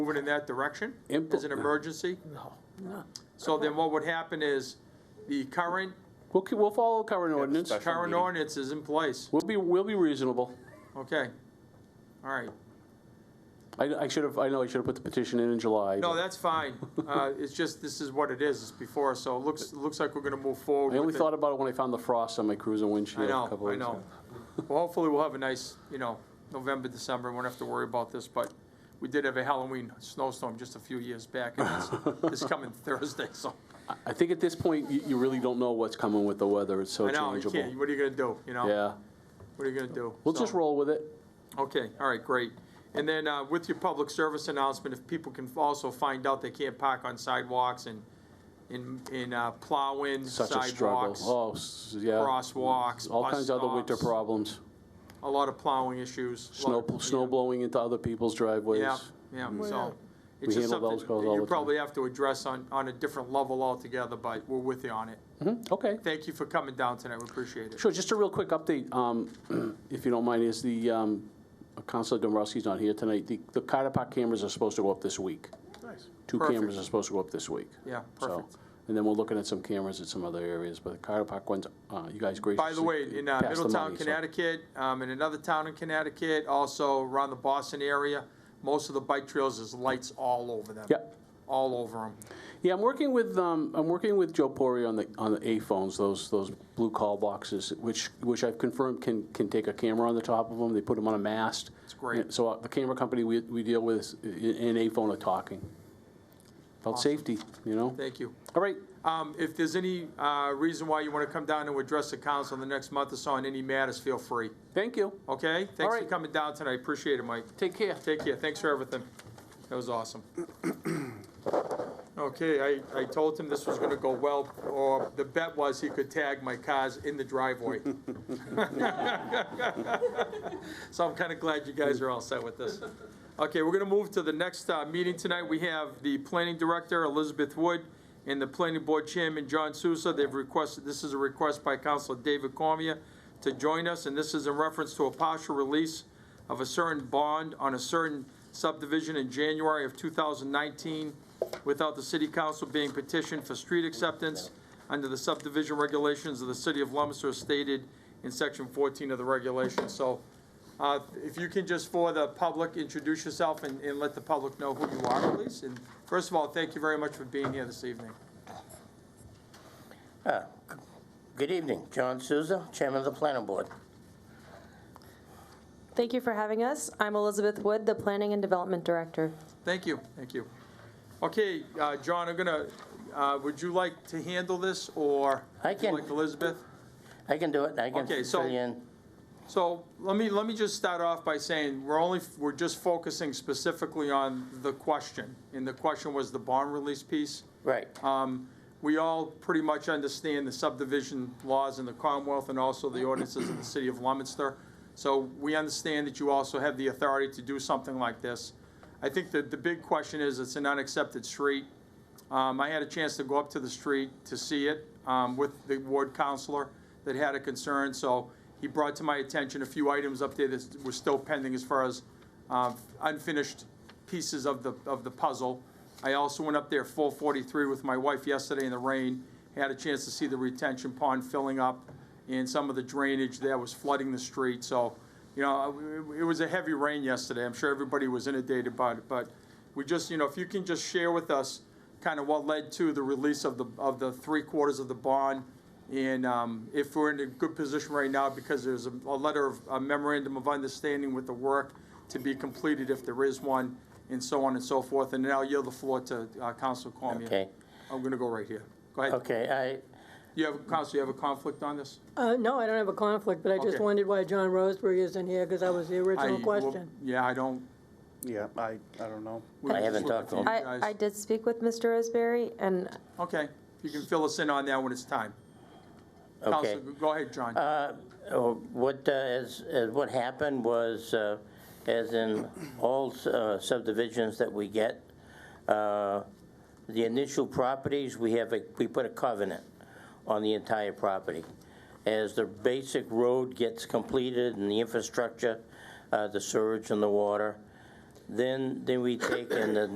moving in that direction Impl- as an emergency? No. So then what would happen is the current, We'll, ke- we'll follow current ordinance. special- current meeting. ordinance is in place. We'll be, we'll be reasonable. Okay. All right. I, I should have, I know I should have put the petition in in July. No, but that's fine. Uh, It's just, this is what it is, it's before, so it looks, it looks like we're gonna move forward. I only with it. thought about it when I found the frost on my cruiser I windshield a know, couple I weeks know. ago. Well, hopefully we'll have a nice, you know, November, December, we won't have to worry about this, but we did have a Halloween snowstorm just a few years back, and it's, it's coming Thursday, so. I- I think at this point, you, you really don't know what's coming with the weather. It's so I know, you changeable. can't, what are you gonna do, you know? Yeah, What are you gonna do? we'll just So- roll with it. Okay, all right, great. And then uh, with your public service announcement, if people can also find out they can't park on sidewalks and, and, and uh, plow in Such a struggle. sidewalks. Oh, s- yeah. crosswalks, All bus kinds of other winter stops. problems. A lot of plowing issues. a Snow, lot of- snow blowing into other people's driveways. Yeah, yeah, so. We It's just something handle those calls that all you the time. probably have to address on, on a different level altogether, but we're with you on it. Mhm, Okay. Thank you for coming down tonight, we appreciate it. Sure, just a real quick update, um, if you don't mind, is the, um, Counselor Dombrowski's not here tonight. The the Carter Park cameras are supposed to go up this week. Nice. Two Perfect. cameras are supposed to go up this week. Yeah, So, perfect. And then we're looking at some cameras at some other areas, but the Carter Park ones, uh, you guys graciously. By the way, in uh, passed the Middletown, money, so- Connecticut, um, in another town in Connecticut, also around the Boston area, most of the bike trails is lights all over them. Yep. All over them. Yeah, I'm working with, um, I'm working with Joe Pori on the, on the A phones, those, those blue call boxes, which, which I've confirmed can, can take a camera on the top of them. They put them on a mast. It's great. So uh, the camera company we, we deal with is- i- and A phone are talking about safety, you know? Thank you. All right, Um, If there's any uh, reason why you want to come down and address the council in the next month or so on any matters, feel free. thank you. Okay? Thanks for right. coming down tonight. Appreciate it, Mike. Take care. Take care. Thanks for everything. That was awesome. Okay, I, I told him this was gonna go well, or the bet was he could tag my cars in the driveway. So I'm kinda glad you guys are all set with this. Okay, we're gonna move to the next, uh, meeting tonight. We have the planning director, Elizabeth Wood, and the planning board chairman, John Sousa. They've requested, this is a request by Councilor David Cormier to join us, and this is in reference to a partial release of a certain bond on a certain subdivision in January of 2019 without the city council being petitioned for street acceptance under the subdivision regulations of the city of Lummester as stated in section 14 of the regulations. So uh, if you can just for the public, introduce yourself and, and let the public know who you are, please. And first of all, thank you very much for being here this evening. Good evening, John Souza, Chairman of the Planning Board. Thank you for having us. I'm Elizabeth Wood, the Planning and Development Director. Thank you, thank you. Okay, uh, John, I'm gonna, uh, would you like to handle this or? I would you can. Like Elizabeth? I can do it, I can Okay, so- fill you in. So let me, let me just start off by saying, we're only, we're just focusing specifically on the question. And the question was the bond release piece. Right, Um, We all pretty much understand the subdivision laws in the Commonwealth and also the ordinances of the city of Leominster. So we understand that you also have the authority to do something like this. I think that the big question is, it's an unaccepted street. Um, I had a chance to go up to the street to see it um, with the ward counselor that had a concern, so he brought to my attention a few items up there that were still pending as far as um, unfinished pieces of the, of the puzzle. I also went up there full 43 with my wife yesterday in the rain, had a chance to see the retention pond filling up and some of the drainage that was flooding the street, so, you know, it it was a heavy rain yesterday, I'm sure everybody was inundated by it, but we just, you know, if you can just share with us kind of what led to the release of the, of the three quarters of the bond, and um, if we're in a good position right now, because there's a a letter of, a memorandum of understanding with the work to be completed if there is one, and so on and so forth. And now I'll yield the floor to uh, Counsel Cormier. Okay. I'm gonna go right here. Go ahead. okay, You have, Counsel, you have a conflict on this? Uh, no, I don't have a conflict, but I just Okay. wondered why John Roseberry isn't here, because that was the I- original well, question. Yeah, I don't. Yeah, I, I don't know. we I just haven't looked talked to at you him. I, guys. I did speak with Mr. Isberry, and Okay, you can fill us in on that when it's time. I, okay. Counsel, go ahead, John. Uh, What, uh, as, as what happened was, uh, as in all uh, subdivisions that we get, uh, the initial properties, we have, a we put a covenant on the entire property. As the basic road gets completed and the infrastructure, uh, the sewage and the water, then, then we take and the